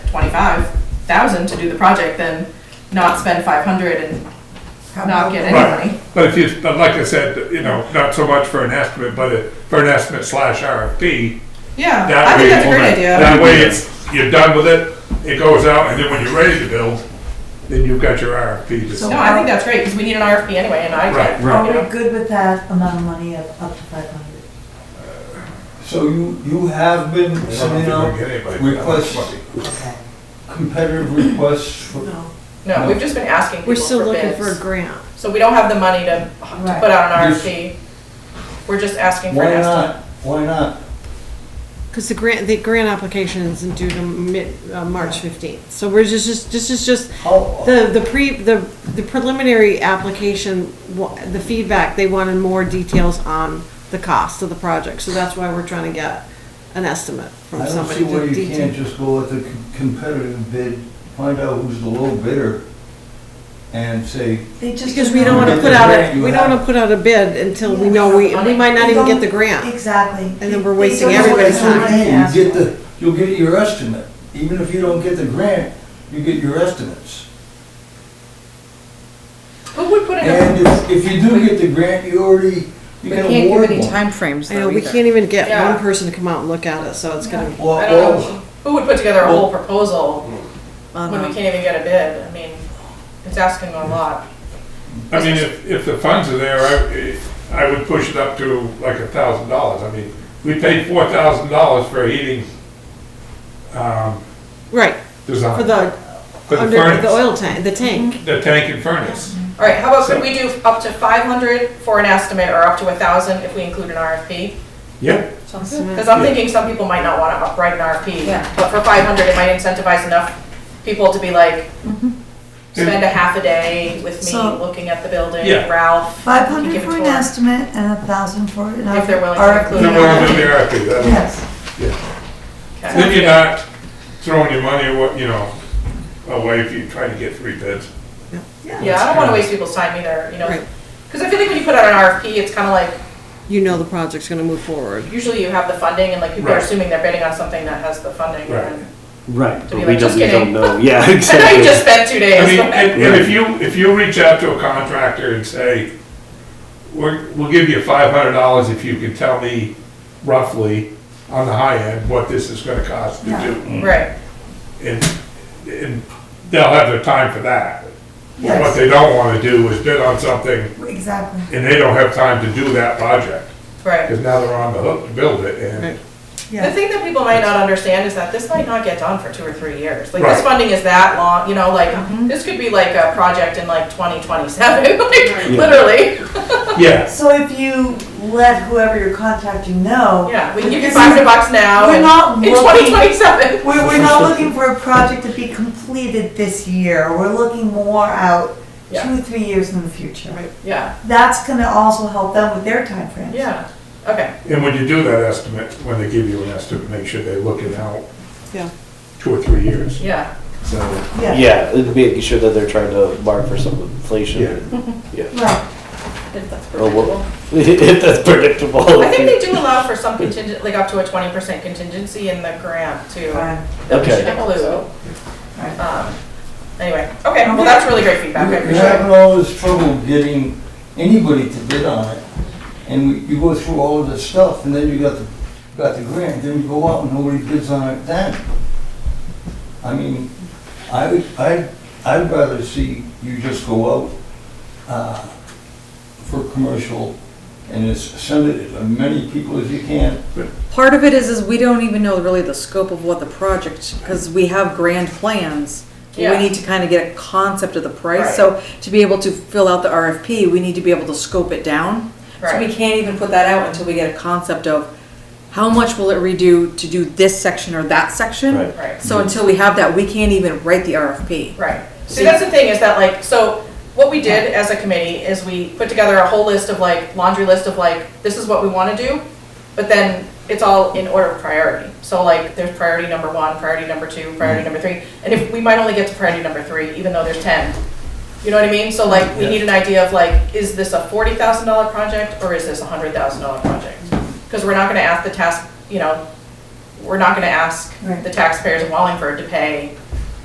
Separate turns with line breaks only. twenty-five thousand to do the project than not spend five hundred and not get any money.
Right, but if you, but like I said, you know, not so much for an estimate, but it- for an estimate slash RFP,
Yeah, I
That
think
way-
that's a great idea.
that way it's, you're done with it, it goes out, and then when you're ready to build, then you've got your RFP to
No,
sell.
I think that's great, because we need an RFP anyway, and I
Right,
can't, you
Are
know.
we good with that amount of money of up to five hundred?
So you, you have been
I don't
sending
think we'll
out
get anybody for that much
requests,
money.
Okay.
competitive requests for,
No.
No, we've just been asking people
We're still
for
looking for a
bids.
grant.
So we don't have the money to, to
Right.
put out an
Just-
RFP. We're just asking for an
why
estimate.
not, why not?
Because the grant, the grant application isn't due to mid, uh, March fifteenth. So we're just, just, this is just,
How,
the, the pre, the, the preliminary application, wa- the feedback, they wanted more details on the cost of the project. So that's why we're trying to get an estimate from
I don't see
somebody.
why
to
you can't
detail.
just go with a com- competitive bid, find out who's the low bidder, and say,
They just.
Because we don't want to
Get
put
the
out,
grant
a
you
we don't want to
have.
put out a bid until we know, we, we might not even get the grant.
Exactly. And
then we're wasting everybody's
that's what I'm
time.
saying, you get the, you'll get your estimate, even if you don't get the grant, you get your estimates.
Who would put in a,
And if, if you do get the grant, you already, you
We
can
can't give
award
any
one.
timeframes
I know,
though
we
either.
can't even get
Yeah.
one person to come out and look at it, so it's gonna.
Or-
I don't know,
or-
who would put together a whole proposal
on
Uh-huh.
when we
a-
can't even get a bid? I mean, it's asking a lot.
I mean, if, if the funds are there, I, I would push it up to like a thousand dollars. I mean, we paid four thousand dollars for a heating, um,
Right,
design.
for the,
for the
under, the
furnace,
oil tank, the tank.
the tank and furnace.
All right, how about
So-
could we do up to five hundred for an estimate or up to a thousand if we include an RFP?
Yeah.
Hmm.
Because I'm thinking some people might not want to write an
Yeah.
RFP, but for five hundred, it might incentivize enough people to be like, spend a half a day with me
So-
looking at the building,
Yeah.
Ralph.
Five
you
hundred
give it
for an
to 'em.
estimate and a thousand for an
If they're willing to
RFP.
include
No, no, no, the RFP, that-
Yes,
Okay.
Then you're not throwing your money, awa- you know, away if you try to get three bids.
Yeah, I don't want to waste people's time either, you know,
Right.
because I feel like when you put out an RFP, it's kind of like,
You know the project's gonna move forward.
usually you have the funding and like people are
Right.
assuming they're bidding on something that has the funding.
Right.
and-
Right,
To be like,
but we
"Just
don't, we
kidding."
don't know, yeah,
I know you just
exactly.
spent two
I
days.
mean,
but-
and and if you, if you reach out to a contractor and say, we're, we'll give you five hundred dollars if you can tell me roughly on the high end what this is gonna cost to
Yeah.
do.
Right,
And, and they'll have their time for that. But What
yes,
they don't wanna do is bid on something
exactly.
and they don't have time to do that project,
right.
cause now they're on the hook to build it and,
The
Yeah,
thing that people might not understand is that this might not get done for two or three years. Like this
Right.
funding is that long, you know, like
Mm-hmm.
this could be like a project in like twenty twenty-seven, like literally.
yeah.
so if you let whoever you're contacting know.
Yeah, we can give you
This
five
is-
hundred bucks now
We're
and
not
in
looking-
twenty twenty-seven.
We're, we're not looking for a project to be completed this year, we're looking more out
Yeah.
two, three years in the future.
Yeah,
That's gonna also help them with their timeframes.
yeah, okay.
And when you do that estimate, when they give you an estimate, make sure they're looking out
Yeah.
two or three years,
Yeah,
so.
Yeah,
Yeah, making sure that they're trying to mark for some inflation,
right,
If that's
Oh, well.
predictable.
if that's predictable.
I think they do allow for some contingent, like up to a twenty percent contingency in the grant too.
right.
We should
Okay,
include.
Right.
Um, Anyway, okay, well, that's really great feedback, I
You're you're
appreciate it.
having all this trouble getting anybody to bid on it, and we- you go through all of this stuff, and then you got the, got the grant, then you go out and nobody bids on it then. I mean, I, would- I, I'd rather see you just go out, uh, for commercial, and it's, send it to as many people as you can.
Part of it is, is we don't even know really the scope of what the project, because we have grand plans. We
Yeah.
need to kind of get a concept of the
Right.
price, so to be able to fill out the RFP, we need to be able to scope it down. So we
Right.
can't even put that out until we get a concept of how much will it redo to do this section or that section?
Right.
Right,
So until we have that, we can't even write the RFP.
right. See, that's the thing is that like, so what we did as a committee is we put together a whole list of like, laundry list of like, this is what we want to do, but then it's all in order of priority. So like, there's priority number one, priority number two, priority number three, and if, we might only get to priority number three, even though there's ten. You know what I mean? So like, we
Yeah.
need an idea of like, is this a forty thousand dollar project or is this a hundred thousand dollar project? Because we're not gonna ask the task, you know, we're not gonna ask
Right.
the taxpayers of Wallingford to pay